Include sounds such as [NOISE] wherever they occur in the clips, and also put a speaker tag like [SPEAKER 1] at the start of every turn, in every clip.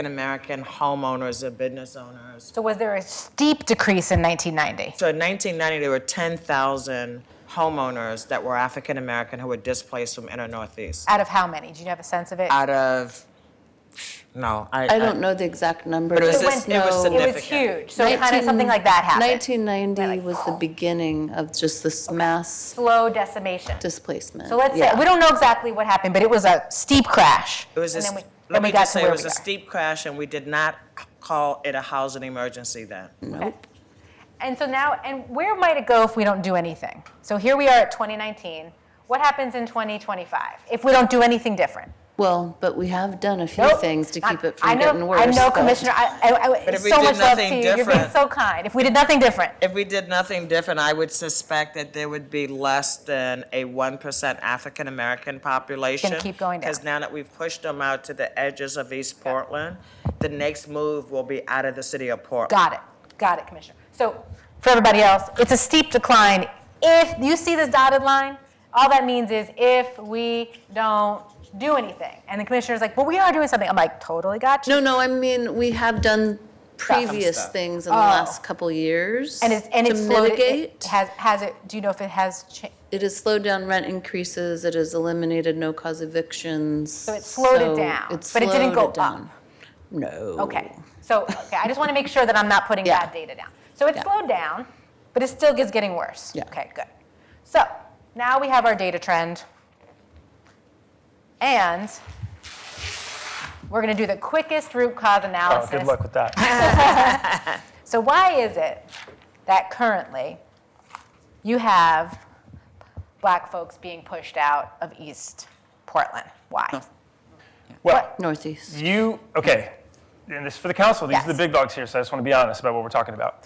[SPEAKER 1] African-American homeowners or business owners.
[SPEAKER 2] So was there a steep decrease in 1990?
[SPEAKER 1] So in 1990, there were 10,000 homeowners that were African-American who were displaced from inner Northeast.
[SPEAKER 2] Out of how many? Do you have a sense of it?
[SPEAKER 1] Out of, no, I.
[SPEAKER 3] I don't know the exact number.
[SPEAKER 1] But it was
[SPEAKER 3] but
[SPEAKER 1] just- it was
[SPEAKER 3] no.
[SPEAKER 2] It
[SPEAKER 1] significant.
[SPEAKER 2] was huge, so kind of something like that happened. oh.
[SPEAKER 3] 1990 was the beginning of just this mass
[SPEAKER 2] Slow decimation.
[SPEAKER 3] displacement.
[SPEAKER 2] So let's say,
[SPEAKER 3] Yeah.
[SPEAKER 2] we don't know exactly what happened, but it was a steep crash.
[SPEAKER 1] It was a
[SPEAKER 2] And
[SPEAKER 1] s-
[SPEAKER 2] then we-
[SPEAKER 1] let
[SPEAKER 2] then
[SPEAKER 1] me
[SPEAKER 2] we got
[SPEAKER 1] just
[SPEAKER 2] to
[SPEAKER 1] say, it
[SPEAKER 2] where
[SPEAKER 1] was
[SPEAKER 2] we
[SPEAKER 1] a
[SPEAKER 2] are.
[SPEAKER 1] steep crash, and we did not call it a housing emergency then.
[SPEAKER 2] Okay. And so now, and where might it go if we don't do anything? So here we are at 2019. What happens in 2025 if we don't do anything different?
[SPEAKER 3] Well, but we have done a few
[SPEAKER 2] Nope.
[SPEAKER 3] things to
[SPEAKER 2] Not-
[SPEAKER 3] keep it
[SPEAKER 2] I
[SPEAKER 3] from
[SPEAKER 2] know-
[SPEAKER 3] getting worse.
[SPEAKER 2] I know,
[SPEAKER 3] but-
[SPEAKER 2] Commissioner. I, I, I,
[SPEAKER 1] But if we
[SPEAKER 2] so
[SPEAKER 1] did
[SPEAKER 2] much love to
[SPEAKER 1] nothing
[SPEAKER 2] you. You're being
[SPEAKER 1] different-
[SPEAKER 2] so kind. If we did nothing different,
[SPEAKER 1] If we did nothing different, I would suspect that there would be less than a 1% African American population.
[SPEAKER 2] keep going down.
[SPEAKER 1] Because now that we've pushed them out to the edges of East Portland, the next move will be out of the city of Portland.
[SPEAKER 2] got it. Got it, Commissioner. So for everybody else, it's a steep decline. If you see this dotted line, all that means is if we don't do anything. And the commissioner's like, well, we are doing something. I'm like, totally got you.
[SPEAKER 3] No, no, I mean, we have done previous
[SPEAKER 1] stuff.
[SPEAKER 3] things in the last couple years.
[SPEAKER 2] Oh. and it's and
[SPEAKER 3] to
[SPEAKER 2] it's slowed, it- It
[SPEAKER 3] mitigate.
[SPEAKER 2] has has it? Do you know if it has changed?
[SPEAKER 3] It has slowed down rent increases, it has eliminated no-cause evictions. So
[SPEAKER 2] it slowed it down, but it didn't go
[SPEAKER 3] slowed it down.
[SPEAKER 2] up.
[SPEAKER 3] No.
[SPEAKER 2] Okay, so, okay, I just want to make sure that I'm not putting
[SPEAKER 3] Yeah.
[SPEAKER 2] bad data down. So it
[SPEAKER 3] Yeah.
[SPEAKER 2] slowed down, but it still is getting worse.
[SPEAKER 3] Yeah.
[SPEAKER 2] Okay, good. So now we have our data trend. And we're going to do the quickest root cause
[SPEAKER 4] Oh,
[SPEAKER 2] analysis.
[SPEAKER 4] good luck
[SPEAKER 1] [LAUGHS]
[SPEAKER 4] with that.
[SPEAKER 2] So why is it that currently you have black folks being pushed out of East Portland? Why?
[SPEAKER 4] Well,
[SPEAKER 3] Northeast.
[SPEAKER 4] you, okay, and this is for the council, these are
[SPEAKER 2] Yes.
[SPEAKER 4] the big dogs here, so I just want to be honest about what we're talking about.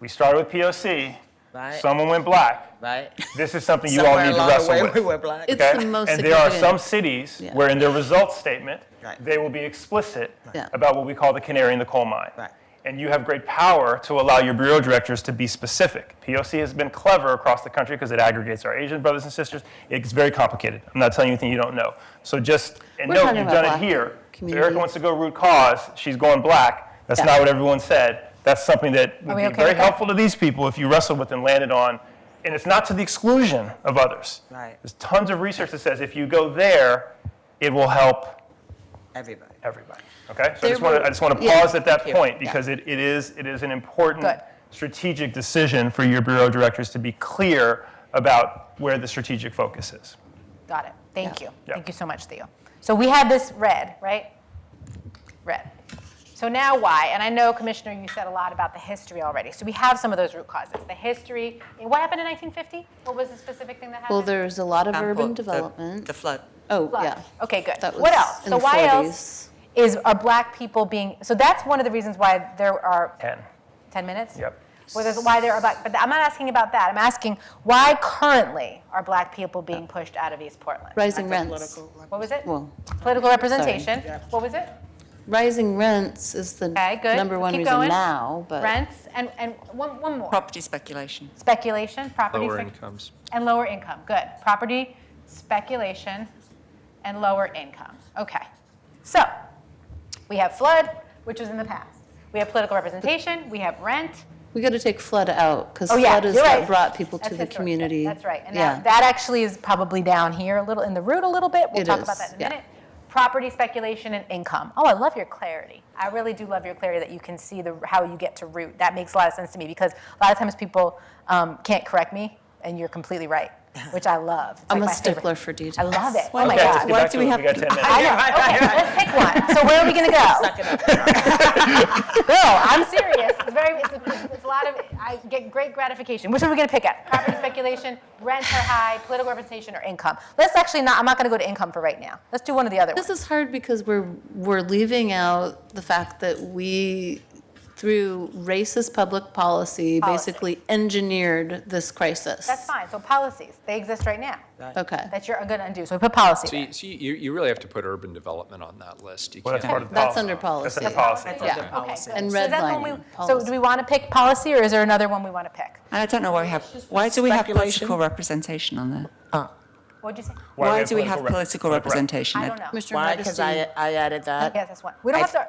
[SPEAKER 4] We started with POC,
[SPEAKER 1] Right.
[SPEAKER 4] someone went black.
[SPEAKER 1] Right?
[SPEAKER 4] This is something you all
[SPEAKER 1] Somewhere
[SPEAKER 4] need to
[SPEAKER 1] along the way,
[SPEAKER 4] wrestle
[SPEAKER 1] we
[SPEAKER 4] with.
[SPEAKER 1] were black.
[SPEAKER 3] It's
[SPEAKER 4] okay?
[SPEAKER 3] the most
[SPEAKER 4] And there are some
[SPEAKER 3] significant.
[SPEAKER 4] cities
[SPEAKER 3] Yeah.
[SPEAKER 4] where in their results statement,
[SPEAKER 1] Right.
[SPEAKER 4] they will be explicit
[SPEAKER 3] Yeah.
[SPEAKER 4] about what we call the canary in the coal mine.
[SPEAKER 1] Right.
[SPEAKER 4] And you have great power to allow your bureau directors to be specific. POC has been clever across the country because it aggregates our Asian brothers and sisters. It's very complicated. I'm not telling you anything you don't know. So just, and
[SPEAKER 3] We're
[SPEAKER 4] note,
[SPEAKER 3] talking
[SPEAKER 4] you've
[SPEAKER 3] about
[SPEAKER 4] done it
[SPEAKER 3] black
[SPEAKER 4] here. So Erica
[SPEAKER 3] communities.
[SPEAKER 4] wants to go root cause, she's going black. That's
[SPEAKER 3] Yeah.
[SPEAKER 4] not what everyone said. That's something that would
[SPEAKER 2] we
[SPEAKER 4] be
[SPEAKER 2] okay
[SPEAKER 4] very
[SPEAKER 2] with that?
[SPEAKER 4] helpful to these people if you wrestled with and landed on. And it's not to the exclusion of others.
[SPEAKER 1] Right.
[SPEAKER 4] There's tons of research that says if you go there, it will help
[SPEAKER 1] Everybody.
[SPEAKER 4] everybody. Okay? So I
[SPEAKER 3] There
[SPEAKER 4] just want
[SPEAKER 3] were-
[SPEAKER 4] to, I just want to
[SPEAKER 3] yeah.
[SPEAKER 4] pause at that
[SPEAKER 1] Thank you.
[SPEAKER 4] point
[SPEAKER 1] Yeah.
[SPEAKER 4] because it, it is, it is an important
[SPEAKER 2] Good.
[SPEAKER 4] strategic decision for your bureau directors to be clear about where the strategic focus is.
[SPEAKER 2] Got it. Thank
[SPEAKER 3] Yeah.
[SPEAKER 2] you.
[SPEAKER 4] Yeah.
[SPEAKER 2] Thank you so much, Theo. So we had this red, right? Red. So now why? And I know, Commissioner, you said a lot about the history already. So we have some of those root causes. The history. and What happened in 1950? What was the specific thing that happened?
[SPEAKER 3] Well, there's a lot of urban
[SPEAKER 1] The-
[SPEAKER 3] development.
[SPEAKER 5] Mm-hmm.
[SPEAKER 1] The flood.
[SPEAKER 3] Oh,
[SPEAKER 2] Flood.
[SPEAKER 3] yeah.
[SPEAKER 2] Okay, good.
[SPEAKER 3] That
[SPEAKER 2] what
[SPEAKER 3] was
[SPEAKER 2] else?
[SPEAKER 3] in
[SPEAKER 2] so
[SPEAKER 3] the
[SPEAKER 2] why
[SPEAKER 3] 40s.
[SPEAKER 2] else is are black people being? So that's one of the reasons why there are
[SPEAKER 4] 10.
[SPEAKER 2] 10 minutes.
[SPEAKER 4] Eh. Yep.
[SPEAKER 2] Well, there's why there are black, but I'm not asking about that. I'm asking why currently are black people being pushed out of East Portland?
[SPEAKER 3] Rising rents.
[SPEAKER 2] What was it?
[SPEAKER 3] Well,
[SPEAKER 2] Political representation. What was it?
[SPEAKER 3] Rising rents is the
[SPEAKER 2] Okay, good.
[SPEAKER 3] number one
[SPEAKER 2] Keep
[SPEAKER 3] reason
[SPEAKER 2] going.
[SPEAKER 3] now, but.
[SPEAKER 2] Rents and, and one, one more.
[SPEAKER 5] Property speculation.
[SPEAKER 2] Speculation, property.
[SPEAKER 6] Lower
[SPEAKER 2] spec-
[SPEAKER 6] incomes.
[SPEAKER 2] And lower income, good. Property, speculation, and lower income. Okay. So, we have flood, which was in the past. We have political representation, we have rent.
[SPEAKER 3] We got to take flood out because
[SPEAKER 2] Oh, yeah,
[SPEAKER 3] flood is
[SPEAKER 2] you're
[SPEAKER 3] what
[SPEAKER 2] right.
[SPEAKER 3] brought people to
[SPEAKER 2] That's
[SPEAKER 3] the
[SPEAKER 2] historic.
[SPEAKER 3] community.
[SPEAKER 2] That's right. And
[SPEAKER 3] yeah.
[SPEAKER 2] that, that actually is probably down here a little, in the root a little bit. We'll
[SPEAKER 3] It
[SPEAKER 2] talk about
[SPEAKER 3] is,
[SPEAKER 2] that in a
[SPEAKER 3] yeah.
[SPEAKER 2] minute. Property speculation and income. Oh, I love your clarity. I really do love your clarity that you can see the, how you get to root. That makes a lot of sense to me because a lot of times people um, can't correct me and you're completely right, which I love. It's
[SPEAKER 3] I'm
[SPEAKER 2] like
[SPEAKER 3] a
[SPEAKER 2] my favorite.
[SPEAKER 3] stickler for details.
[SPEAKER 2] I love it. Oh
[SPEAKER 3] Why-
[SPEAKER 2] my
[SPEAKER 4] okay, let's
[SPEAKER 2] God.
[SPEAKER 4] get back to
[SPEAKER 3] do we
[SPEAKER 4] it.
[SPEAKER 3] have
[SPEAKER 4] got
[SPEAKER 3] to-
[SPEAKER 4] 10 minutes.
[SPEAKER 2] I know. Okay, let's pick one. So where are we gonna go? [LAUGHS] Girl, I'm serious. It's very, it's a, it's a lot of, I get great gratification. Which one are we gonna pick at? Property speculation, rents are high, political representation, or income? Let's actually not, I'm not gonna go to income for right now. Let's do one of the other
[SPEAKER 3] This
[SPEAKER 2] ones.
[SPEAKER 3] is hard because we're, we're leaving out the fact that we, through racist public policy,
[SPEAKER 2] Policy.
[SPEAKER 3] basically engineered this crisis.
[SPEAKER 2] That's fine. So policies, they exist right now
[SPEAKER 3] Okay.
[SPEAKER 2] that you're gonna undo. So we put policy
[SPEAKER 6] So
[SPEAKER 2] there.
[SPEAKER 6] you, so you, you really have to put urban development on that list. You
[SPEAKER 4] Well, that's
[SPEAKER 6] can't-
[SPEAKER 4] part of the
[SPEAKER 3] That's
[SPEAKER 4] policy.
[SPEAKER 3] under
[SPEAKER 4] That's
[SPEAKER 3] policy.
[SPEAKER 4] under policy.
[SPEAKER 1] That's
[SPEAKER 3] Yeah.
[SPEAKER 1] under
[SPEAKER 3] Okay,
[SPEAKER 1] policy.
[SPEAKER 3] And
[SPEAKER 2] So that's one we-
[SPEAKER 3] redlining
[SPEAKER 2] So do
[SPEAKER 3] policy.
[SPEAKER 2] we wanna pick policy or is there another one we wanna pick?
[SPEAKER 5] And I don't know why we have, why do we have
[SPEAKER 1] Speculation.
[SPEAKER 5] political representation on there?
[SPEAKER 2] What'd you say?
[SPEAKER 5] Why
[SPEAKER 4] have
[SPEAKER 5] do we have
[SPEAKER 4] rep-
[SPEAKER 5] political representation?
[SPEAKER 2] I don't know.
[SPEAKER 3] Commissioner
[SPEAKER 1] Why? Because
[SPEAKER 3] Modesty.
[SPEAKER 1] I, I added that.
[SPEAKER 2] Yes, that's one. We don't have to